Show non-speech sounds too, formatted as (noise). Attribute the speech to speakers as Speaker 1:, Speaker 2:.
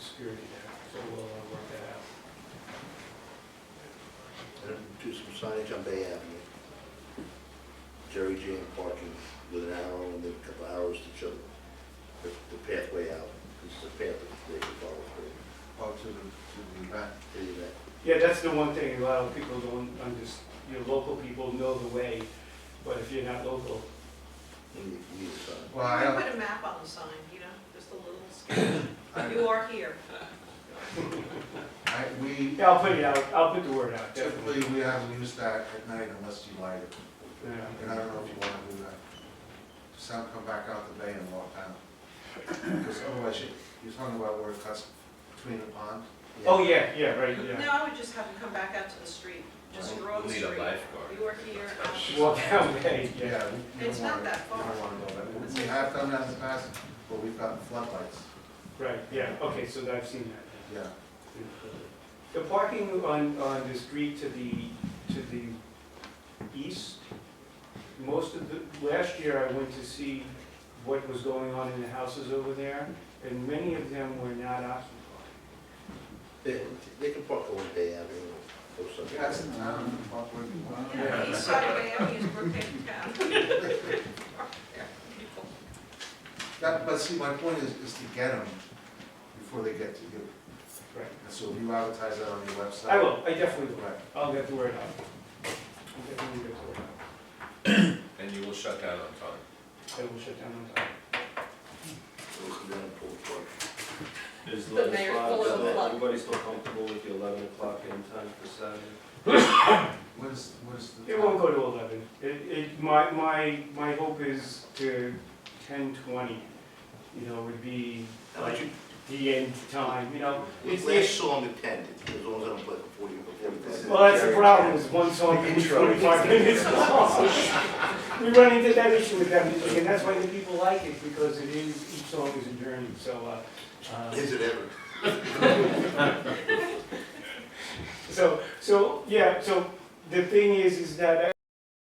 Speaker 1: security there, so we'll uh, work that out.
Speaker 2: Do some signage on Bay Avenue. Jerry Jane parking with an arrow and then a couple hours to show the the pathway out. This is a path that they can follow through.
Speaker 3: Oh, to the, to the event.
Speaker 2: Any of that.
Speaker 1: Yeah, that's the one thing, a lot of people don't, I'm just, you know, local people know the way, but if you're not local,
Speaker 2: You need- you need a sign.
Speaker 3: Well, I don't,
Speaker 4: put a map on the sign, you know, just
Speaker 3: (coughs)
Speaker 4: a little sketch.
Speaker 3: I,
Speaker 4: You are here.
Speaker 3: I, we,
Speaker 1: yeah, I'll put it out, I'll put the word out, definitely.
Speaker 3: typically, we haven't used that at night unless you light it.
Speaker 1: Yeah.
Speaker 3: And I don't know if you wanna do that. Just have them come back out the bay and walk down. Because otherwise, you, you're talking about where it cuts between the pond.
Speaker 1: Oh, yeah, yeah, right,
Speaker 4: No,
Speaker 1: yeah.
Speaker 4: I would just have them come back out to the street, just
Speaker 3: Right.
Speaker 4: draw the
Speaker 5: We'll need
Speaker 4: street.
Speaker 5: a lifeguard.
Speaker 4: You are here. uh,
Speaker 1: Walk that way, yeah.
Speaker 3: Yeah. we- we
Speaker 4: It's
Speaker 3: don't
Speaker 4: not
Speaker 3: wanna-
Speaker 4: that
Speaker 3: We
Speaker 4: far.
Speaker 3: don't wanna go that, we- we have done that in the past, but we've gotten floodlights,
Speaker 1: Right, yeah, okay, so I've seen that.
Speaker 3: yeah.
Speaker 1: The parking on, on the street to the, to the east, most of the, last year I went to see what was going on in the houses over there, and many of them were not occupied.
Speaker 2: They, they can park on Bay Avenue or something.
Speaker 3: That's in town, walk where you want.
Speaker 4: You know, east side of Miami is Brookhaven Town.
Speaker 3: (laughs)
Speaker 4: (laughs)
Speaker 3: That, but see, my point is, is to get them before they get to you.
Speaker 1: Right.
Speaker 3: And so if you advertise that on your website.
Speaker 1: I will, I definitely will.
Speaker 3: Right.
Speaker 1: I'll get the word out. I'll definitely get the word out.
Speaker 5: And you will shut down on time.
Speaker 1: I will shut down on time.
Speaker 2: Those are down Pool Park.
Speaker 6: Is
Speaker 4: The
Speaker 6: the
Speaker 4: mayor's
Speaker 6: spot,
Speaker 4: full of
Speaker 6: so
Speaker 4: luck.
Speaker 6: everybody still comfortable with the eleven o'clock end time for Saturday?
Speaker 3: What is, what is the?
Speaker 1: It won't go to eleven. It, it, my, my, my hope is to ten twenty, you know, would be
Speaker 2: How
Speaker 1: like
Speaker 2: about you?
Speaker 1: the end time, you know? It's,
Speaker 2: Last
Speaker 1: it's,
Speaker 2: song at ten, as long as I don't play for forty, for forty-five.
Speaker 1: well, that's the problem, is one song is
Speaker 2: Intro.
Speaker 1: forty-five minutes long. We run into that issue with that music, and that's why the people like it, because it is, each song is a journey, so, uh, uh,
Speaker 2: Is it ever?
Speaker 1: So, so, yeah, so the thing is, is that